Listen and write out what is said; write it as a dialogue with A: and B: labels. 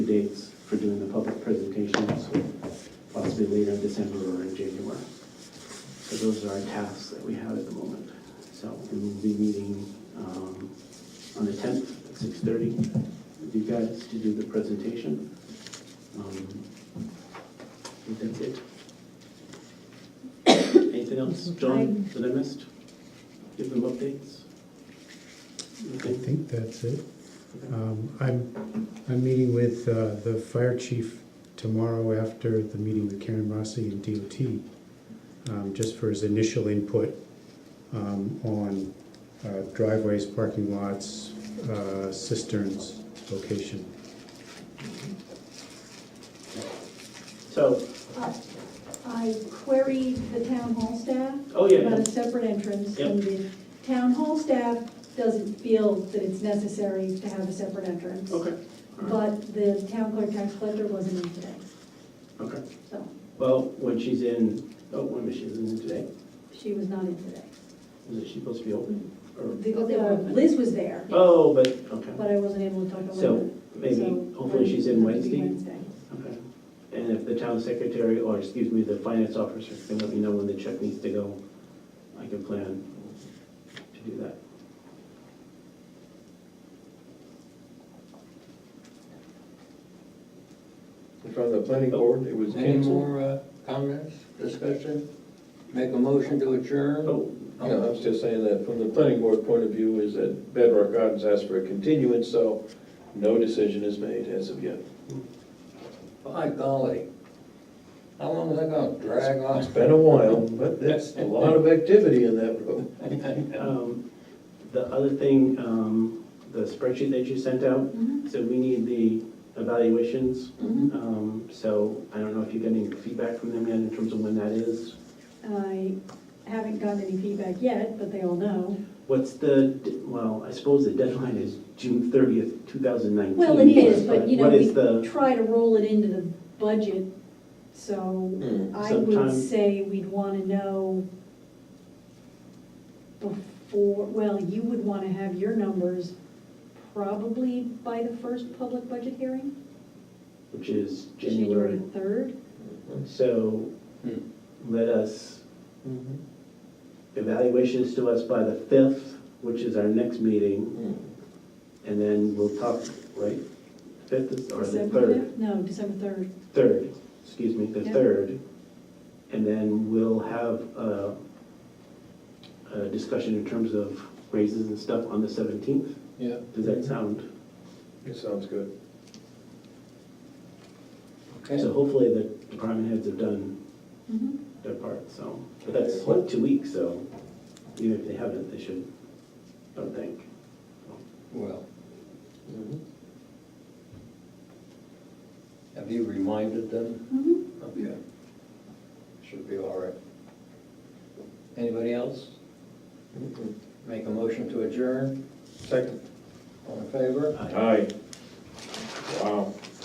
A: dates for doing the public presentations, possibly later in December or in January. So those are our tasks that we have at the moment. So we will be meeting um, on the 10th at 6:30 with you guys to do the presentation. Um, I think that's it. Anything else, John, that I missed? Give them updates?
B: I
A: Okay.
B: think that's it. Um, I'm, I'm meeting with uh, the fire chief tomorrow after the meeting with Karen Rossi and DOT, um, just for his initial input um, on uh, driveways, parking lots, uh, cisterns, location.
A: So,
C: I queried the town hall staff
A: oh
C: about
A: yeah,
C: a separate entrance, and the town hall staff doesn't feel that it's necessary to have a separate entrance.
A: okay,
C: But the town clerk tax collector wasn't in today,
A: okay.
C: so
A: Well, when she's in, oh, when was she in today?
C: she was not in today.
A: Was she supposed to be open? Or,
C: The- the- Liz was there,
A: oh, but, okay,
C: but I wasn't able to talk to
A: So,
C: Linda.
A: maybe,
C: so
A: hopefully she's in
C: it'll have to be
A: Wednesday. Okay. And if the town secretary, or excuse me, the finance officer can let me know when the check needs to go, I can plan to do that.
D: From the planning board, it was
E: Any
D: canceled.
E: more uh, comments, discussion? Make a motion to adjourn?
A: Oh,
D: You know, I was just saying that from the planning board point of view is that Bedrock Gardens asked for a continuance, so no decision is made as of yet.
E: By golly. How long is that gonna Oh, drag
D: It's
E: on?
D: been a while, but that's a lot of activity in that room.
A: um, the other thing, um, the spreadsheet that you sent out,
C: Wednesday.
A: so we need the evaluations
C: Mhm, mhm.
A: Um, So I don't know if you got any feedback from them yet in terms of when that is.
C: I haven't gotten any feedback yet, but they all know.
A: What's the, well, I suppose the deadline is June 30th, 2019.
C: Well, it is, but you know,
A: What
C: we
A: is the,
C: try to roll it into the budget, so
E: Mm-hmm.
D: Hmm.
C: I
A: Sometime-
C: would say we'd want to know before, well, you would want to have your numbers probably by the first public budget hearing,
A: which is
C: January
A: January.
C: 3rd.
A: So
E: Hmm.
A: let us, evaluations to us by the 5th, which is our next meeting, and then we'll talk, right? 5th is, or the
C: December
A: 3rd?
C: 5th? No, December 3rd.
A: 3rd, excuse me, the
C: Yeah.
A: 3rd. And then we'll have a, a discussion in terms of raises and stuff on the 17th.
D: Yeah.
A: Does that sound?
D: It sounds good.
E: Okay,
A: So hopefully the department heads have done
C: Mhm.
A: their part, so. But that's what, two weeks, so even if they haven't, they should, I would think.
E: well, Mm-hmm. have you reminded them?
C: Mhm.
E: Okay. oh, Should be all right. Anybody else? Mm-hmm.
D: Mhm.
E: Make a motion to adjourn?
D: Second.
E: All in favor?
A: I-
D: Aye. Wow.